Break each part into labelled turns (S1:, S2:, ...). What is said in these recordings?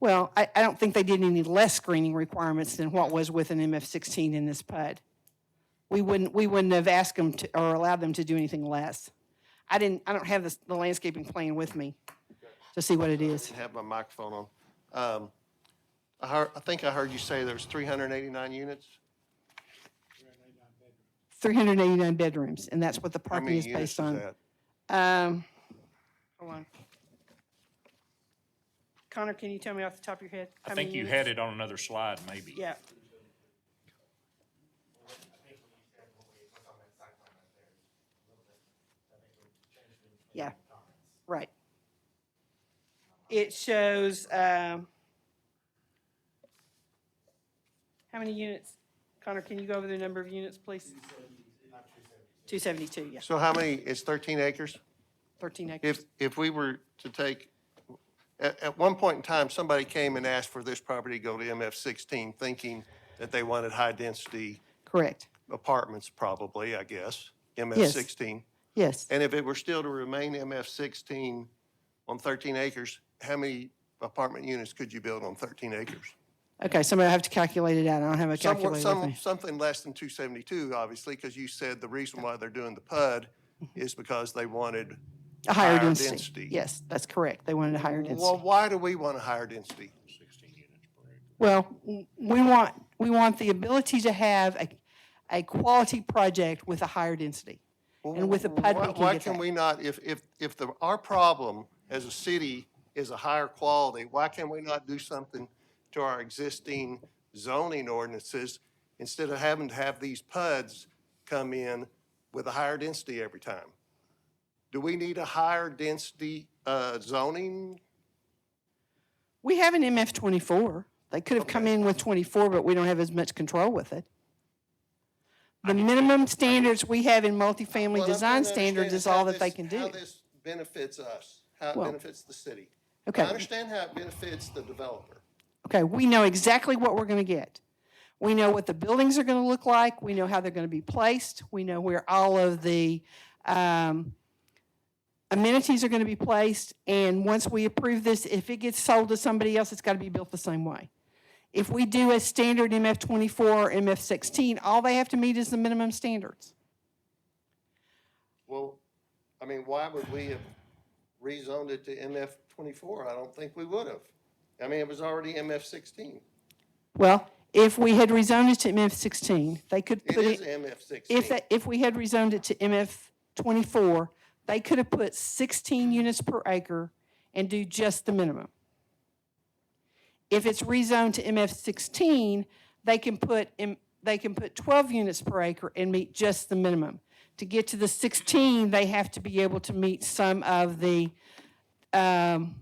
S1: Well, I, I don't think they did any less screening requirements than what was with an MF16 in this PUD. We wouldn't, we wouldn't have asked them to, or allowed them to do anything less. I didn't, I don't have this- the landscaping plan with me to see what it is.
S2: have my microphone on. Um, I heard, I think I heard you say there's 389 units?
S1: 389 bedrooms, and that's what the
S2: How
S1: parking
S2: many
S1: is
S2: units is
S1: based on.
S2: that?
S1: Um, hold on. Connor, can you tell me off the top of your head?
S3: I think you had it on another slide, maybe.
S1: Yeah. Yeah, right. It shows, um, how many units? Connor, can you go over the number of units, please? Two seventy-two, yeah,
S2: So how many, it's 13 acres?
S1: thirteen acres.
S2: If, if we were to take, at, at one point in time, somebody came and asked for this property to go to MF16, thinking that they wanted high-density
S1: Correct,
S2: apartments probably, I guess, MF16.
S1: yes.
S2: And if it were still to remain MF16 on 13 acres, how many apartment units could you build on 13 acres?
S1: Okay, somebody have to calculate it out. I don't have a
S2: Somewhat,
S1: calculator with
S2: some,
S1: me.
S2: something less than two seventy-two, obviously, because you said the reason why they're doing the PUD
S1: Mm-hmm.
S2: is because they wanted.
S1: A higher
S2: higher
S1: density.
S2: density.
S1: Yes, that's correct. They wanted a higher
S2: Well,
S1: density.
S2: why do we want a higher density?
S1: Well, w- we want, we want the ability to have a, a quality project with a higher density. And with a PUD, we
S2: Why-
S1: can
S2: Why
S1: get
S2: can
S1: that.
S2: we not, if, if, if the, our problem as a city is a higher quality, why can we not do something to our existing zoning ordinances instead of having to have these PUDs come in with a higher density every time? Do we need a higher density, uh, zoning
S1: We have an MF twenty-four. They could have come in with twenty-four, but we don't have as much control with it. The minimum standards we have in multifamily
S2: Well, I'm trying
S1: design
S2: to
S1: standards
S2: understand
S1: is all
S2: how
S1: that they
S2: this-
S1: can
S2: How
S1: do.
S2: this benefits us, how it
S1: Well,
S2: benefits the city. I
S1: Okay.
S2: understand how it benefits the developer.
S1: Okay, we know exactly what we're going to get. We know what the buildings are going to look like. We know how they're going to be placed. We know where all of the um, amenities are going to be placed. And once we approve this, if it gets sold to somebody else, it's got to be built the same way. If we do a standard MF24 or MF16, all they have to meet is the minimum standards.
S2: Well, I mean, why would we have rezoned it to MF twenty-four? I don't think we would have. I mean, it was already MF sixteen.
S1: Well, if we had rezoned it to MF16, they could
S2: It
S1: put
S2: is
S1: it,
S2: MF sixteen.
S1: if, that- if we had rezoned it to MF24, they could have put 16 units per acre and do just the minimum. If it's rezoned to MF16, they can put, in- they can put 12 units per acre and meet just the minimum. To get to the 16, they have to be able to meet some of the um,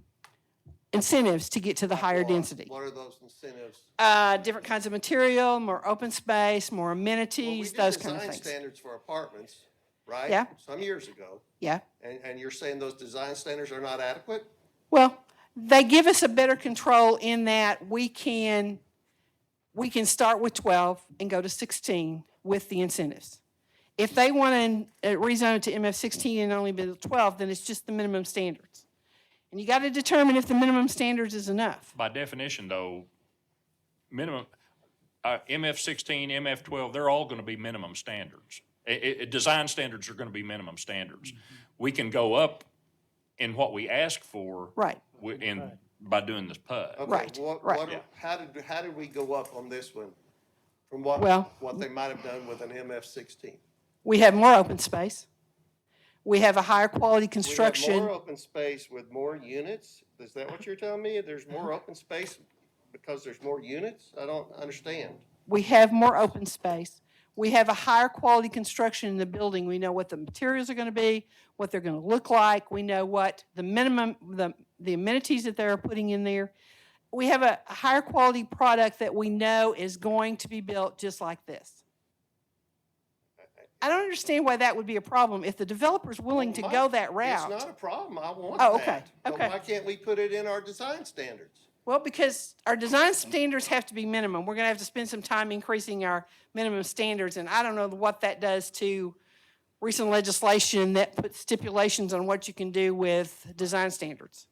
S1: incentives to get to the higher density.
S2: What are those incentives?
S1: Uh, Different kinds of material, more open space, more
S2: Well, we
S1: amenities,
S2: did
S1: those kind of
S2: design
S1: things.
S2: Standards for apartments, right?
S1: Yeah.
S2: Some years ago.
S1: Yeah.
S2: And, and you're saying those design standards are not adequate?
S1: Well, they give us a better control in that we can, we can start with 12 and go to 16 with the incentives. If they want to uh, rezone it to MF16 and only build 12, then it's just the minimum standards. And you got to determine if the minimum standards is enough.
S3: By definition, though, minimum, uh, MF sixteen, MF twelve, they're all gonna be minimum standards. I- I- I- design standards are gonna be minimum standards.
S1: Mm-hmm.
S3: We can go up in what we ask for.
S1: Right.
S3: wi- in, by doing this PUD.
S2: Okay,
S1: Right,
S2: what-
S1: right.
S2: what-
S3: Yeah.
S2: How did, how did we go up on this one from what,
S1: Well-
S2: what they might have done with an MF sixteen?
S1: We have more open space. We have a higher quality
S2: We have
S1: construction.
S2: more open space with more units? Is that what you're telling me? There's
S1: Mm-hmm.
S2: more open space because there's more units? I don't understand.
S1: We have more open space. We have a higher quality construction in the building. We know what the materials are going to be, what they're going to look like. We know what the minimum, the, the amenities that they're putting in there. We have a a higher quality product that we know is going to be built just like this. I don't understand why that would be a problem if the developer's willing to
S2: Well,
S1: go
S2: my-
S1: that
S2: It's
S1: route.
S2: not a problem. I want that.
S1: Oh, okay,
S2: But
S1: okay.
S2: why can't we put it in our design standards?
S1: Well, because our design standards have to be minimum. We're going to have to spend some time increasing our minimum standards, and I don't know what that does to recent legislation that puts stipulations on what you can do with design standards.